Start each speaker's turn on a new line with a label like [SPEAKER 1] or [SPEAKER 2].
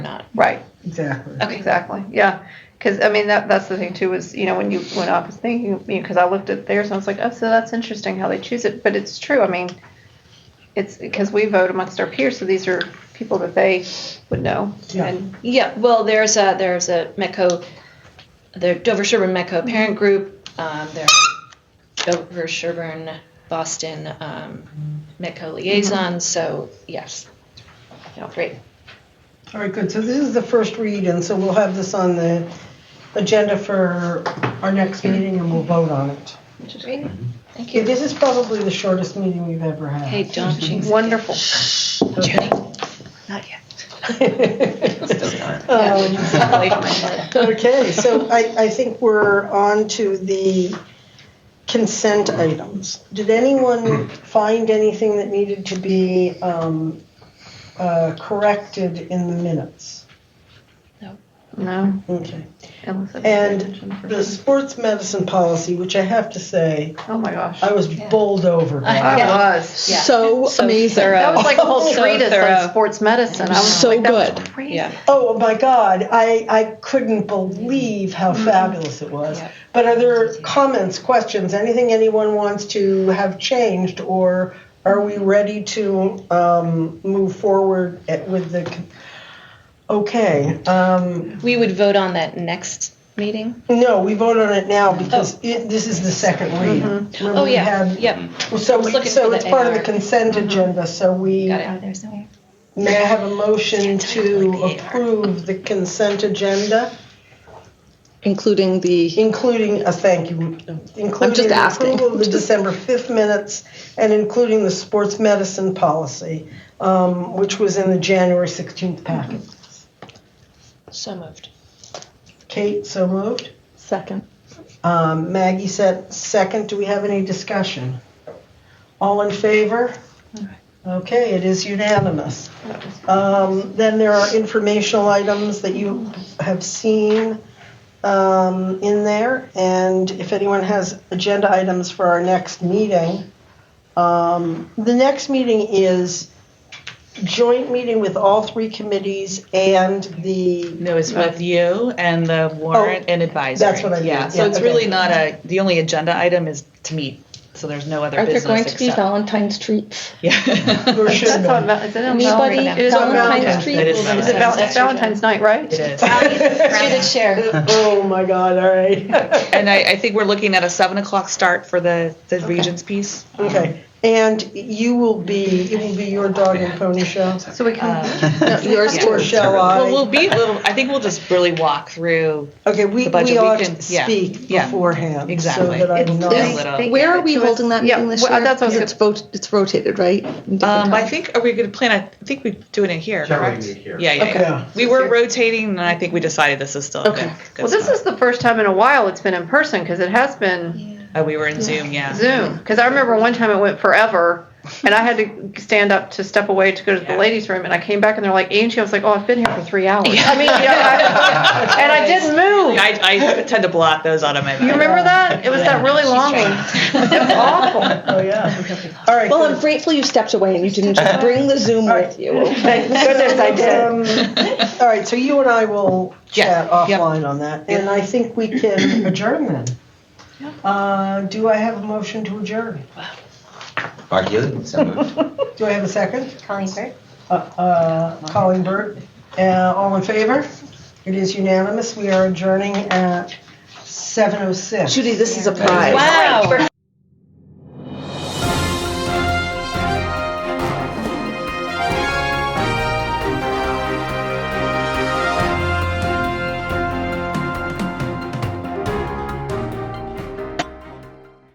[SPEAKER 1] Right.
[SPEAKER 2] Exactly.
[SPEAKER 3] Okay.
[SPEAKER 1] Exactly. Yeah. Because I mean that that's the thing too is you know when you when I was thinking because you know, 'cause I looked at theirs and I was like oh so that's interesting how they choose it but it's true I mean it's because we vote amongst our peers so these are people that they would know
[SPEAKER 2] Yeah.
[SPEAKER 1] and
[SPEAKER 3] Yeah, Mm-hmm. well, there's a there's a MECO, the Dover Sherburne MECO parent group. Um, there, are Dover Sherburne Boston um, MECO liaison. So yes,
[SPEAKER 1] you know, great
[SPEAKER 2] All right, good. So this is the first read, and so we'll have this on the agenda for our next meeting, and we'll vote on it.
[SPEAKER 1] which is great.
[SPEAKER 3] thank
[SPEAKER 2] Okay,
[SPEAKER 3] you.
[SPEAKER 2] This is probably the shortest meeting we've ever had.
[SPEAKER 3] Hey, John, jinx it.
[SPEAKER 1] wonderful
[SPEAKER 3] Jenny. Not yet.
[SPEAKER 2] Um,
[SPEAKER 3] Step away from my head.
[SPEAKER 2] Okay, so I, I think we're on to the consent items. Did anyone find anything that needed to be um, uh, corrected in the minutes?
[SPEAKER 1] no
[SPEAKER 2] Okay.
[SPEAKER 1] unless I
[SPEAKER 2] And
[SPEAKER 1] pay attention for-
[SPEAKER 2] The sports medicine policy, which I have to say,
[SPEAKER 1] oh my gosh
[SPEAKER 2] I was bowled over by.
[SPEAKER 3] I-
[SPEAKER 1] I
[SPEAKER 3] Yeah.
[SPEAKER 1] was
[SPEAKER 3] Yeah.
[SPEAKER 4] So, amazing.
[SPEAKER 3] thorough.
[SPEAKER 1] that was like a whole
[SPEAKER 4] So
[SPEAKER 1] treatise
[SPEAKER 4] thorough.
[SPEAKER 1] on sports medicine I was
[SPEAKER 4] So
[SPEAKER 1] like, that was
[SPEAKER 4] good.
[SPEAKER 1] crazy.
[SPEAKER 3] Yeah.
[SPEAKER 2] Oh my God, I, I couldn't believe how fabulous it was.
[SPEAKER 3] Mm-hmm. Yeah.
[SPEAKER 2] But are there comments, questions, anything anyone wants to have changed, or are
[SPEAKER 3] Mm-hmm.
[SPEAKER 2] we ready to um, move forward at, with the? con- Okay, um,
[SPEAKER 3] We would vote on that next meeting.
[SPEAKER 2] no, we vote on it now because it, this is the second read. Remember
[SPEAKER 3] Oh
[SPEAKER 2] we
[SPEAKER 3] yeah,
[SPEAKER 2] had-
[SPEAKER 3] yep.
[SPEAKER 2] So, we,
[SPEAKER 3] looking
[SPEAKER 2] so
[SPEAKER 3] for the
[SPEAKER 2] it's part of the
[SPEAKER 3] AR.
[SPEAKER 2] consent agenda. So we
[SPEAKER 3] Got it. Oh, there's no.
[SPEAKER 2] May I have a motion to
[SPEAKER 3] Like the AR.
[SPEAKER 2] approve the consent agenda,
[SPEAKER 4] including the
[SPEAKER 2] including a thank you, including
[SPEAKER 4] just
[SPEAKER 2] the
[SPEAKER 4] asking.
[SPEAKER 2] approval of the December 5th minutes and including the sports medicine policy, um, which was in the January 16th packet.
[SPEAKER 3] So moved.
[SPEAKER 2] Kate, so moved.
[SPEAKER 4] second.
[SPEAKER 2] Um, Maggie said second. Do we have any discussion? All in favor? Okay, it is unanimous.
[SPEAKER 1] That was-
[SPEAKER 2] Um, Then there are informational items that you have seen um, in there, and if anyone has agenda items for our next meeting, um, the next meeting is joint meeting with all three committees and the,
[SPEAKER 5] No, it's with you and the warrant and advisory.
[SPEAKER 2] that's what I mean.
[SPEAKER 5] Yeah, so
[SPEAKER 2] Yeah,
[SPEAKER 5] it's
[SPEAKER 2] okay.
[SPEAKER 5] really not a, the only agenda item is to meet, so there's no other
[SPEAKER 4] Are there
[SPEAKER 5] business
[SPEAKER 4] going to be
[SPEAKER 5] except-
[SPEAKER 4] Valentine's treats?
[SPEAKER 5] Yeah.
[SPEAKER 2] or should
[SPEAKER 1] That's
[SPEAKER 2] be.
[SPEAKER 1] on, Val- is it on
[SPEAKER 4] Anybody?
[SPEAKER 1] Valentine's?
[SPEAKER 4] It is
[SPEAKER 2] on
[SPEAKER 4] Valentine's treat.
[SPEAKER 5] It is
[SPEAKER 1] Is it Val- it's
[SPEAKER 5] Valentine's.
[SPEAKER 1] Valentine's night, right?
[SPEAKER 5] It is.
[SPEAKER 3] You did share.
[SPEAKER 2] Oh, my God, all right.
[SPEAKER 5] And I, I think we're looking at a seven o'clock start for the, the Regents piece.
[SPEAKER 2] Okay, and you will be, it will be your dog and pony show?
[SPEAKER 1] So we can.
[SPEAKER 2] Yours. Or shall
[SPEAKER 5] Um, Well, we'll
[SPEAKER 2] I?
[SPEAKER 5] be, we'll, I think we'll just really walk through.
[SPEAKER 2] Okay, we,
[SPEAKER 5] the
[SPEAKER 2] we
[SPEAKER 5] budget, we
[SPEAKER 2] ought
[SPEAKER 5] can-
[SPEAKER 2] to
[SPEAKER 5] yeah,
[SPEAKER 2] speak
[SPEAKER 5] yeah,
[SPEAKER 2] beforehand, so
[SPEAKER 5] exactly.
[SPEAKER 2] that I'm
[SPEAKER 1] It's-
[SPEAKER 2] not.
[SPEAKER 5] Is- little-
[SPEAKER 1] they
[SPEAKER 4] Where
[SPEAKER 1] give
[SPEAKER 4] are
[SPEAKER 1] it
[SPEAKER 4] we
[SPEAKER 1] to us-
[SPEAKER 4] holding that
[SPEAKER 1] yeah,
[SPEAKER 4] meeting this
[SPEAKER 1] well,
[SPEAKER 4] year?
[SPEAKER 1] That's what I was
[SPEAKER 4] Because it's vote, it's rotated, right? In different
[SPEAKER 5] Um, I
[SPEAKER 4] times.
[SPEAKER 5] think, are we going to plan, I think we do it in here,
[SPEAKER 6] Generally
[SPEAKER 5] correct?
[SPEAKER 6] meet here.
[SPEAKER 5] Yeah, yeah,
[SPEAKER 2] Okay.
[SPEAKER 5] yeah. We were rotating and I think we decided this is still a good. good
[SPEAKER 1] Well, this
[SPEAKER 5] spot.
[SPEAKER 1] is the first time in a while it's been in person because it has been
[SPEAKER 5] Oh, we were in Zoom, yeah.
[SPEAKER 1] Zoom. Because I remember one time it went forever, and I had to stand up to step away to go to the
[SPEAKER 5] Yeah.
[SPEAKER 1] ladies' room, and I came back and they're like, "Angie," I was like, "Oh, I've been here for three hours." I mean, you know, I- and I didn't move.
[SPEAKER 5] I, I tend to blot those out of my mind.
[SPEAKER 1] You remember that? It was that really long one. It was awful.
[SPEAKER 2] Oh, yeah. All right.
[SPEAKER 4] Well,
[SPEAKER 2] good.
[SPEAKER 4] I'm grateful you stepped away and you didn't just bring the Zoom with you.
[SPEAKER 1] Thank goodness I did.
[SPEAKER 2] Um, All right, so you and I will
[SPEAKER 5] Yeah,
[SPEAKER 2] chat
[SPEAKER 5] yep.
[SPEAKER 2] offline on that, and I think we can adjourn then. Uh, do I have a motion to adjourn?
[SPEAKER 6] Mark Healy, so moved.
[SPEAKER 2] Do I have a second? Colleen Burt. Uh, uh, Colleen Burt, uh, all in favor? It is unanimous, we are adjourning at seven oh six.
[SPEAKER 4] Judy, this is a prize.
[SPEAKER 3] Wow.